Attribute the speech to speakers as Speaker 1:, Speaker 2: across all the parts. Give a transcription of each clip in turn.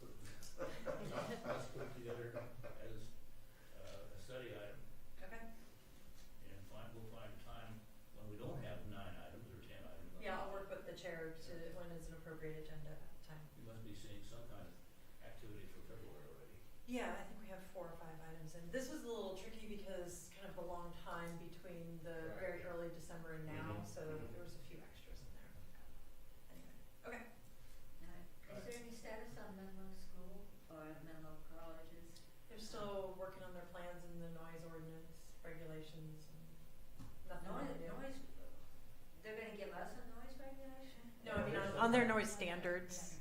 Speaker 1: uh,
Speaker 2: Yeah, I think we have four or five items, and this was a little tricky because kind of the long time between the very
Speaker 3: Right.
Speaker 2: early December and now,
Speaker 1: Mhm,
Speaker 2: so
Speaker 1: mhm.
Speaker 2: there was a few extras in there. Anyway, okay.
Speaker 4: Is
Speaker 3: Right.
Speaker 4: there any status on Menlo School or Menlo Colleges?
Speaker 2: They're still working on their plans and the noise ordinance regulations and nothing
Speaker 4: Noise,
Speaker 2: they do.
Speaker 4: noise, they're gonna give us a noise regulation?
Speaker 2: No, I mean,
Speaker 1: Noise.
Speaker 2: on, on their noise standards,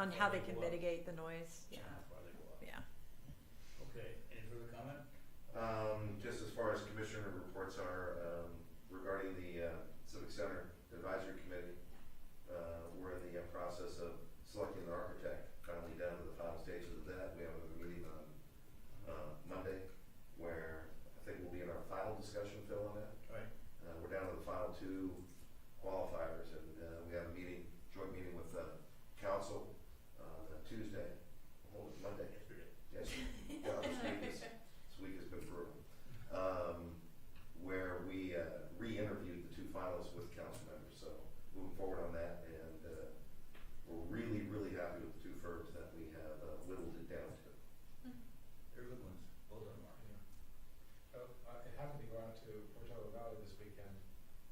Speaker 2: on how they can
Speaker 1: Well,
Speaker 2: mitigate the noise, yeah,
Speaker 1: Why they go up.
Speaker 2: yeah.
Speaker 1: Okay, any further comment?
Speaker 5: Um, just as far as commissioner reports are, um, regarding the, uh, Civic Center Advisory Committee, uh, we're in the uh, process of selecting the architect, finally down to the final stages of that. We have a meeting on, uh, Monday where I think we'll be in our final discussion, Phil, on that.
Speaker 1: Right.
Speaker 5: Uh, we're down to the final two qualifiers and, uh, we have a meeting, joint meeting with, uh, council, uh, Tuesday, hold it Monday.
Speaker 1: Yesterday.
Speaker 5: Yes, yeah, this week is, this week has been brutal. Um, where we, uh, re-interviewed the two finalists with council members, so moving forward on that, and, uh, we're really, really happy with the two firms that we have uh, whittled it down to.
Speaker 1: They're good ones, both of them are.
Speaker 3: Yeah. Uh, I I happened to go out to Portola Valley this weekend,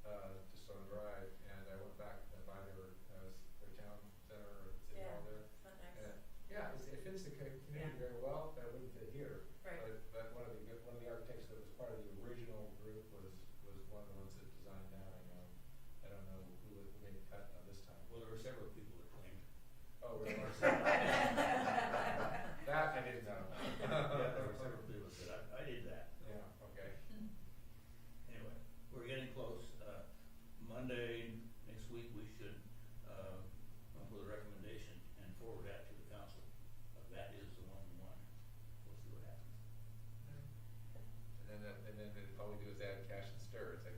Speaker 3: uh, just on a drive, and I went back and by their, uh, s- their town center, or city hall there.
Speaker 2: Not nice.
Speaker 3: And, yeah, it's- it fits the co- community
Speaker 2: Yeah.
Speaker 3: very well, that wouldn't fit here. Uh,
Speaker 2: Right.
Speaker 3: But, but one of the, good- one of the architects that was part of the original group was, was one of the ones that designed that, I know. I don't know who would- who made the cut on this time.
Speaker 1: Well, there were several people that claimed.
Speaker 3: Oh, really?
Speaker 4: Right.
Speaker 3: That I didn't know.
Speaker 1: Yeah, there were several people that said, I, I did that.
Speaker 3: Yeah, okay.
Speaker 1: Anyway, we're getting close. Uh, Monday, next week, we should, uh, come up with a recommendation and forward that to the council. Uh, That is the one we want. We'll see what happens.
Speaker 3: And then, that- and then all we do is add cash and stir, it's like, oh,